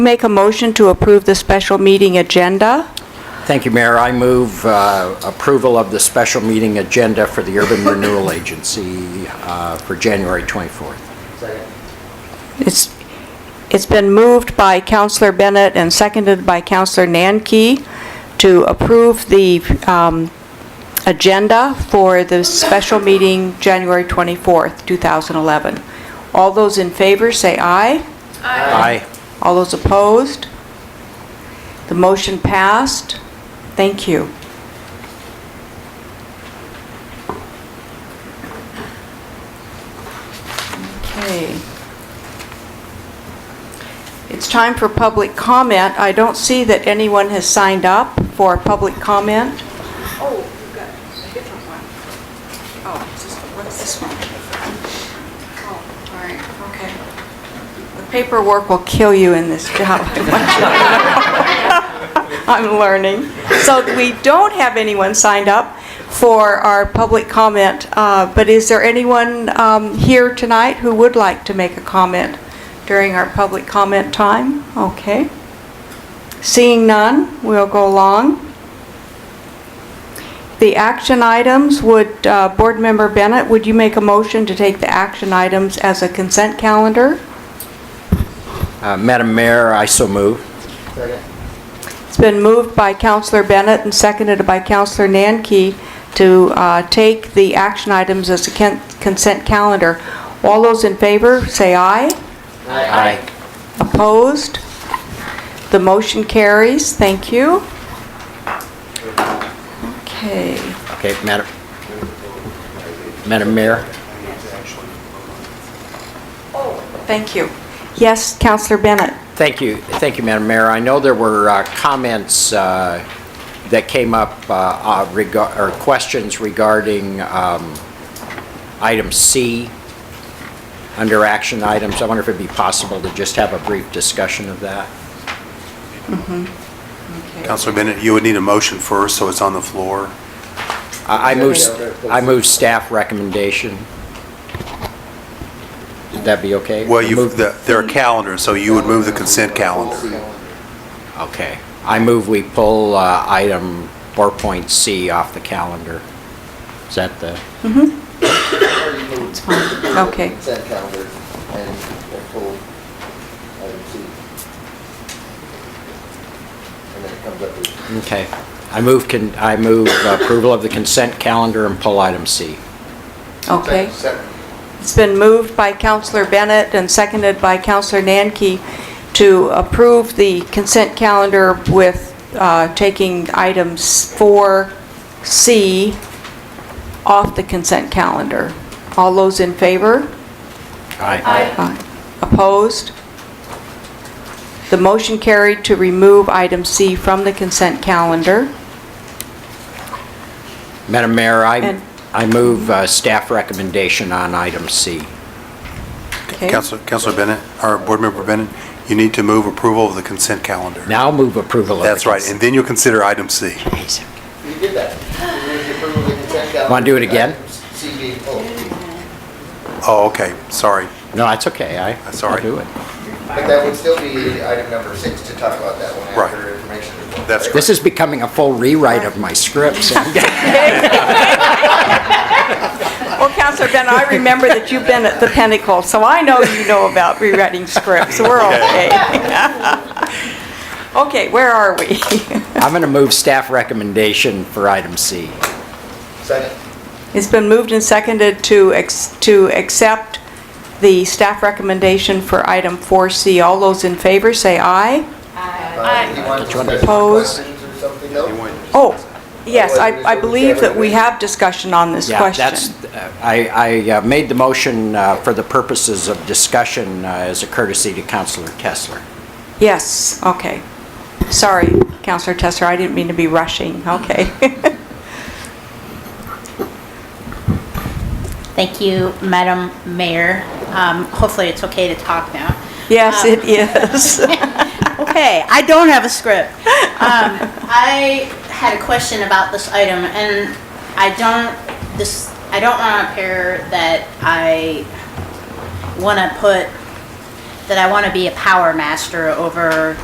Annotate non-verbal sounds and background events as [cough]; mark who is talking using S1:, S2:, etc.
S1: Make a motion to approve the special meeting agenda.
S2: Thank you, Mayor. I move uh, approval of the special meeting agenda for the Urban Renewal Agency uh, for January 24th.
S1: It's, it's been moved by Counselor Bennett and seconded by Counselor Nanki to approve the um, agenda for the special meeting January 24th, 2011. All those in favor, say aye.
S2: Aye.
S1: All those opposed? The motion passed. Thank you. Okay. It's time for public comment. I don't see that anyone has signed up for public comment. Oh, you've got a different one. Oh, is this- what's this one? Oh, all right, okay. The paperwork will kill you in this job. [laughs] I want you to know. I'm learning. So we don't have anyone signed up for our public comment, uh, but is there anyone um, here tonight who would like to make a comment during our public comment time? Okay. Seeing none, we'll go along. The action items, would, uh, Board Member Bennett, would you make a motion to take the action items as a consent calendar?
S2: Uh, Madam Mayor, I so move.
S1: It's been moved by Counselor Bennett and seconded by Counselor Nanki to uh, take the action items as a ken- consent calendar. All those in favor, say aye.
S2: Aye.
S1: Opposed? The motion carries. Thank you. Okay.
S2: Okay, Madam, Madam Mayor?
S1: Thank you. Yes, Counselor Bennett?
S2: Thank you, thank you, Madam Mayor. I know there were uh, comments uh, that came up, uh, uh, rega- or questions regarding um, item C under action items. I wonder if it'd be possible to just have a brief discussion of that?
S3: Counselor Bennett, you would need a motion first, so it's on the floor.
S2: I I move, I move staff recommendation. Would that be okay?
S3: Well, you've,
S2: Move-
S3: the- there are calendars, so you would move the consent calendar.
S2: Okay. I move we pull uh, item 4.C off the calendar. Is that the?
S4: already moved. It's
S1: fine. Okay.
S4: Consent calendar and they're full item C. And then it comes up with.
S2: Okay. I move, con- I move approval of the consent calendar and pull item C.
S1: Okay.
S4: Second.
S1: It's been moved by Counselor Bennett and seconded by Counselor Nanki to approve the consent calendar with uh, taking items 4C off the consent calendar. All those in favor?
S2: Aye.
S1: Aye. Opposed? The motion carried to remove item C from the consent calendar.
S2: Madam Mayor, I,
S1: And-
S2: I move uh, staff recommendation on item C.
S1: Okay.
S3: Counselor Counselor Bennett, or Board Member Bennett, you need to move approval of the consent calendar.
S2: Now move approval of the
S3: That's right, and
S2: consent-
S3: then you'll consider item C.
S4: You did that. You moved the approval of the consent calendar.
S2: Wanna do it again?
S4: Items C being pulled.
S3: Oh, okay, sorry.
S2: No, that's okay. I,
S3: That's all
S2: I'll
S3: right.
S2: do it.
S4: But that would still be item number six to talk about that one
S3: Right.
S4: after information. report.
S3: That's
S2: This is becoming a full rewrite of my
S1: [laughs]
S2: scripts.
S1: Well, Counselor Bennett, I remember that you've been at the Pinnacle, so I know you know about rewriting scripts. We're okay. [laughs] Okay, where are we?
S2: [laughs] I'm going to move staff recommendation for item C.
S4: Second.
S1: It's been moved and seconded to, ex- to accept the staff recommendation for item 4C. All those in favor, say aye.
S4: Uh, You want to
S2: one to-
S4: special
S1: Pose.
S4: questions or something else?
S1: Oh, yes, I, I believe that we have discussion on this
S2: Yeah,
S1: question.
S2: that's. uh, I, I uh, made the motion uh, for the purposes of discussion uh, as a courtesy to Counselor Kessler.
S1: Yes, okay. Sorry, Counselor Tesser, I didn't mean to be rushing. Okay. [laughs]
S5: Thank you, Madam Mayor. Um, Hopefully, it's okay to talk now.
S1: Yes,
S5: Um,
S1: it is.
S5: Okay, I don't have a script. [laughs] Um, I had a question about this item, and I don't, this, I don't want to appear that I want to put that I want to be a power master over